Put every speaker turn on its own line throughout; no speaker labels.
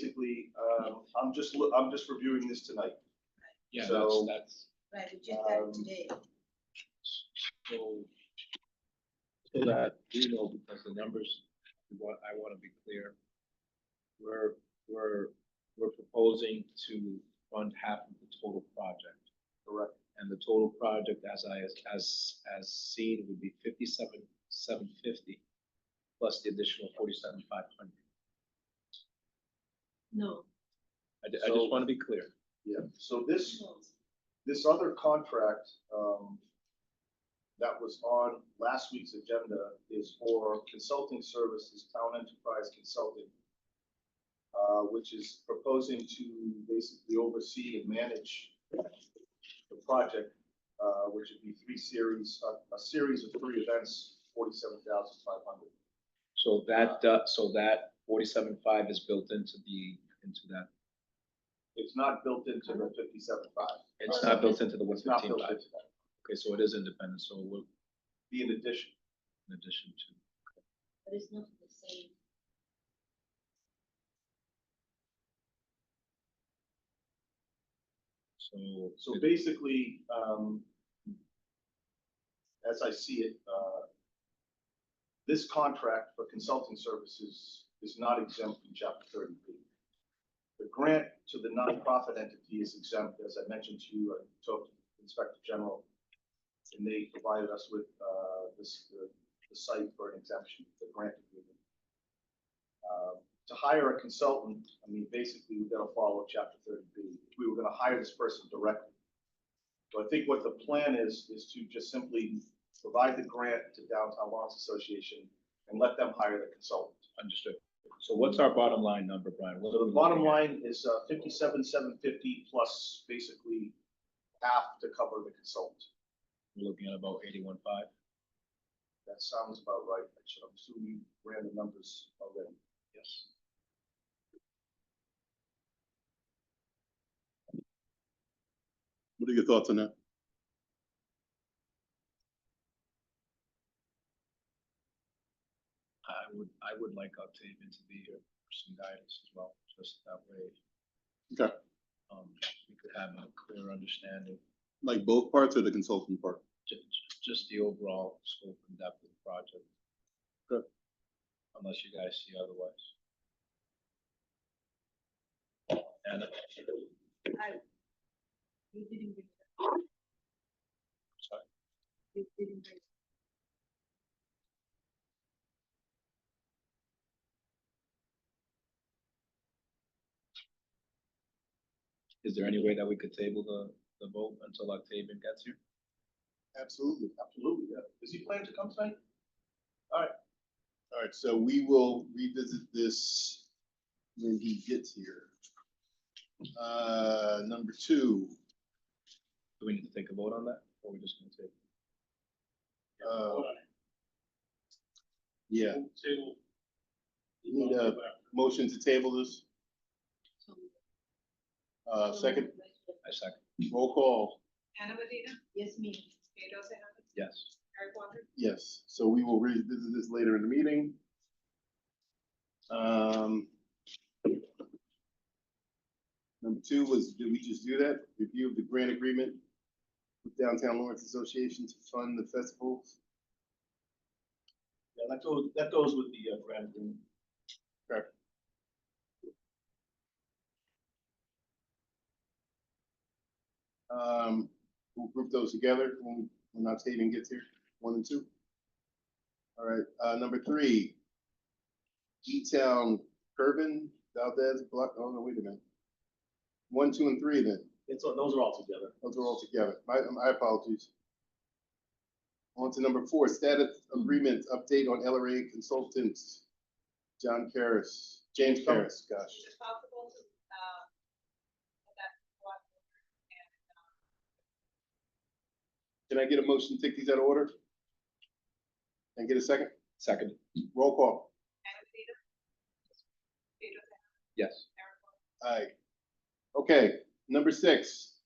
basically, um, I'm just, loo- I'm just reviewing this tonight.
Yeah, that's,
So-
that's,
Right, we just got
Um,
it today.
so. So that we know, because the numbers, what, I wanna be clear. We're, we're, we're proposing to fund half of the total project.
Correct.
And the total project as I, as, as seen would be fifty-seven, seven fifty, plus the additional forty-seven, five hundred.
No,
I, ju- I
So-
just wanna be clear.
Yeah. So this,
no.
this other contract, um, that was on last week's agenda is for consulting services, Town Enterprise Consulting, uh, which is proposing to basically oversee and manage the project, uh, which would be three series, a, a series of three events, forty-seven thousand five hundred.
So that, uh, so that forty-seven, five is built into the, into that,
It's not built into the fifty-seven five.
it's not built into the one
It's not
fifteen,
built
five.
into that.
Okay, so it is independent, so we're
Be in addition.
in addition to.
But it's not the same.
So,
So
it-
basically, um, as I see it, uh, this contract for consulting services is not exempt from chapter thirty B. The grant to the nonprofit entity is exempt, as I mentioned to you, I talked to Inspector General, and they provided us with, uh, this, the, the site for an exemption, the grant agreement. Uh, to hire a consultant, I mean, basically, we've got to follow chapter thirty B. If we were going to hire this person directly. So I think what the plan is, is to just simply provide the grant to Downtown Lawrence Association and let them hire the consultant.
understood. So what's our bottom line number, Brian? What
So
are
the
we
bottom
looking
line
at?
is uh, fifty-seven, seven fifty plus basically half to cover the consultant.
We're looking at about eighty-one, five.
That sounds about right. Actually, I'm assuming you ran the numbers already.
Yes.
What are your thoughts on that?
I would, I would like Octavian to be here for some guidance as well, just that way.
Okay.
Um, we could have a clear understanding,
Like both parts or the consultant part?
ju- ju- just the overall scope and depth of the project.
Good.
Unless you guys see otherwise. And
You didn't bring it up.
Sorry?
You didn't bring it
is there any way that we could table the, the vote until Octavian gets here?
Absolutely.
Absolutely, yeah. Is he planning to come tonight?
All right, so we will revisit this when he gets here. Uh, number two,
Do we need to take a vote on that, or we just gonna table?
uh, yeah,
Table.
You need uh, a- motion to table this,
up.
uh,
So-
second
I second,
roll call,
Anna Medina,
Yes, me.
Pedro Serrano,
yes.
Eric Walker,
yes, so we will revisit this later in the meeting. Um. Number two was, did we just do that? Review of the grant agreement with Downtown Lawrence Association to fund the festivals?
Yeah, that goes, that goes with the uh, grant agreement.
Um, we'll group those together when, when Octavian gets here, one and two. All right, uh, number three. E-Town, Curvin, Valdez, Block, oh no, wait a minute. One, two, and three then,
It's, all- those are all together.
those are all together, my, my apologies. On to number four, status agreement, update on LRA consultants. John Karas, James Karas, gosh,
is it possible to, uh, put that one over and, um,
uh,
can I get a motion to take these out of order? And get a second,
Second,
roll call,
Anna Medina? Pedro Serrano,
yes.
Eric Walker,
Aye. Okay, number six,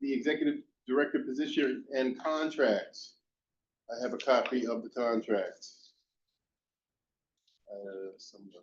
the executive director position and contracts. I have a copy of the contract. Uh, somewhere.